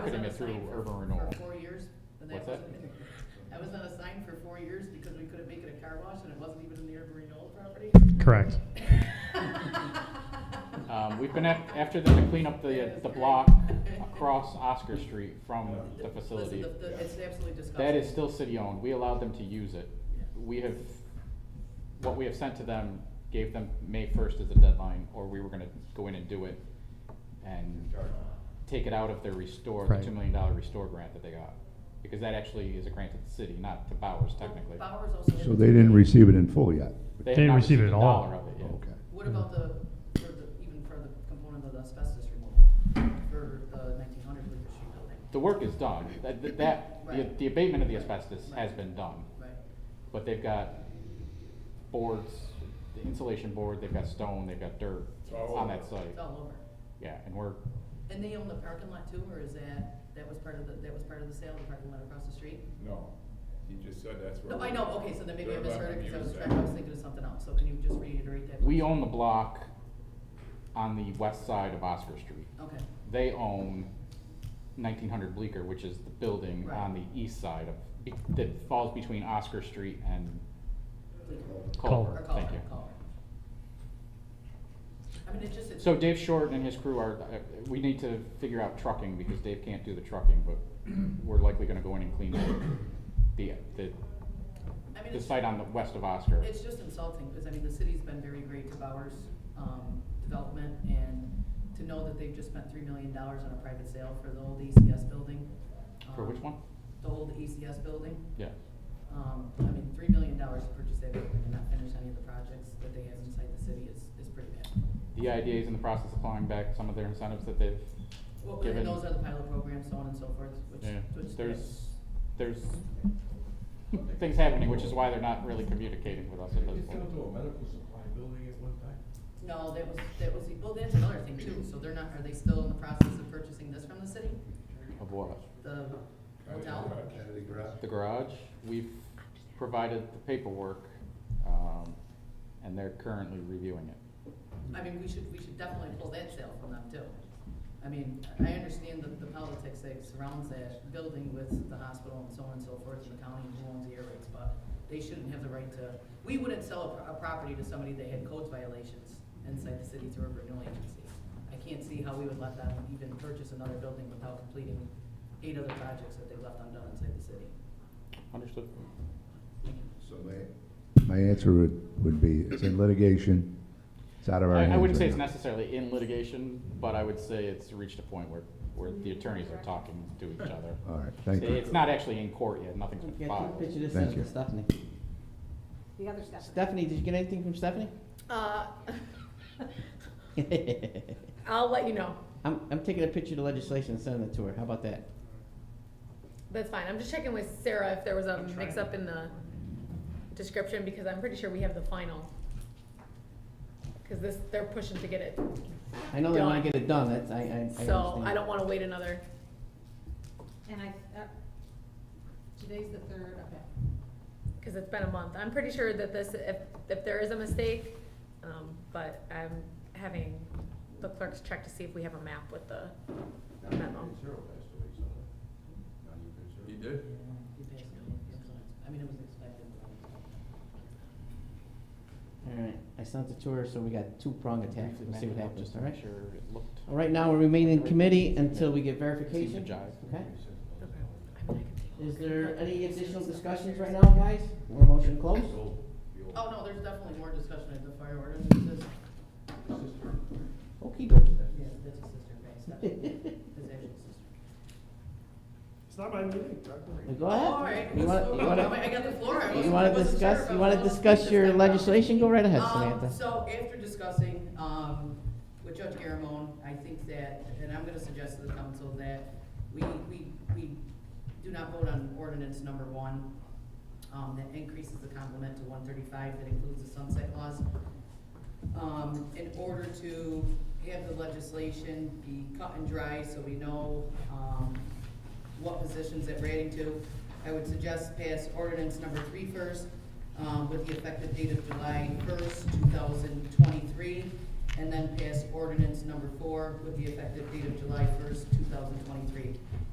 Marketing it through urban renewal. For four years, and that What's that? wasn't, I was on a sign for four years because we couldn't make it a car wash and it wasn't even in the urban renewal property. Correct. Um, we've been af- after them to clean up the, the block across Oscar Street from the Listen, facility. the- the- it's absolutely disgusting. That is still city-owned, we allowed them to use it. We have, what we have sent to them, gave them May first as a deadline, or we were gonna go in and do it and take it out of their restore, the Right. two million dollar restore grant that they got. Because that actually is a grant to the city, not to Bowers technically. Bowers also. So they didn't receive it in full yet? have They not receive it received a at all. dollar of it yet. Okay. What about the, for the, even for the component of the asbestos removal for the nineteen hundred Bleecker Street building? The work is done, that, that- that, the- Right. the abatement of the asbestos Right. has been done. Right, But they've got boards, the insulation board, they've got stone, they've got dirt on that site. it's all over. Yeah, and we're, And they own the parking lot too, or is that, that was part of the, that was part of the sale, the parking lot across the street? No, you just said that's where. No, I know, okay, so then maybe I Where misheard it, Robert because I was Muir trying, I was said. thinking of something else, so can you just reiterate that? we own the block on the west side of Oscar Street. Okay, They own nineteen hundred Bleecker, which is the building Right. on the east side of, be- that falls between Oscar Street and or Culver, call thank her, you. call her. I mean, it just, it's. So Dave Short and his crew are, uh, we need to figure out trucking, because Dave can't do the trucking, but we're likely gonna go in and clean the, I the, mean, the it's- site on the west of Oscar. It's just insulting, because I mean, the city's been very great to Bowers, um, development, and to know that they've just spent three million dollars on a private sale for the old ECS building. For um, which one? The old ECS building, Yeah, um, I mean, three million dollars to purchase that building and not finish any of the projects that they have inside the city is, is pretty bad. the IDA is in the process of clawing back some of their incentives that they've Well, given. and those are the pilot programs, so on and so forth, which, Yeah, which. there's, there's things happening, which is why they're not really communicating with us at this It's point. down to a medical supply building at one time. No, that was, that was, well, that's another thing too, so they're not, are they still in the process of purchasing this from the city? Of what? The Right, hotel? right. Kennedy Garage. The garage, we've provided the paperwork, um, and they're currently reviewing it. I mean, we should, we should definitely pull that sale from them too. I mean, I understand the, the politics that surrounds that building with the hospital and so on and so forth, and the county and who owns the air rights, but they shouldn't have the right to, we wouldn't sell a, pro- a property to somebody that had codes violations inside the city through a renewal agency. I can't see how we would let them even purchase another building without completing eight other projects that they left undone inside the city. Understood? So My answer would, would be, it's in litigation, it's out of our hands. I, I wouldn't say right it's now. necessarily in litigation, but I would say it's reached a point where, where the attorneys are talking to each other. All right, thank you. It's not actually in court yet, nothing's been Yeah, filed. take a picture of this Thank sent to you. Stephanie. The other stuff. Stephanie, did you get anything from Stephanie? Uh, I'll let you know. I'm, I'm taking a picture of the legislation and sending it to her. How about that? That's fine. I'm just checking with Sarah if there was a mix-up in the description, because I'm pretty sure we have the final. Cause this, they're pushing to get it, I know they wanna Done. get it done, that's, I, I, I understand. so I don't wanna wait another. And I, uh, today's the third, okay. Cause it's been a month. I'm pretty sure that this, if, if there is a mistake, um, but I'm having the clerks check to see if we have a map with the memo. Zero passed away, so. Now you can zero. He did? You guys know, yeah, I mean, it was expected. Alright, I sent it to her, so we got two-prong attack, Briefly we'll see what mentioned it, happens, just to alright? make Sure, it looked. All right, now we remain in committee until we get seemed verification. to jive. Okay, Okay. I mean, I can take a is look. there any additional discussions right now, guys? Or motion closed? Oh, no, there's definitely more discussion at the fire ordinance, Okey dokey. Yeah, that's a sister, okay, stop it. His actual sister. It's not my meeting, Go ahead. All right. You wanna, you wanna? I got the floor. I You wasn't- want I to wasn't sure discuss, if I you was want to supposed discuss your that. legislation? Go right ahead, Um, Samantha. So after discussing, um, with Judge Garamone, I think that, and I'm gonna suggest to the council that we, we, we do not vote on ordinance number one, um, that increases the complement to one thirty-five, that includes the sunset clause. Um, in order to have the legislation be cut and dry, so we know, um, what positions that we're adding to. I would suggest pass ordinance number three first, um, with the effective date of July first, two thousand twenty-three, and then pass ordinance number four with the effective date of July first, two thousand twenty-three.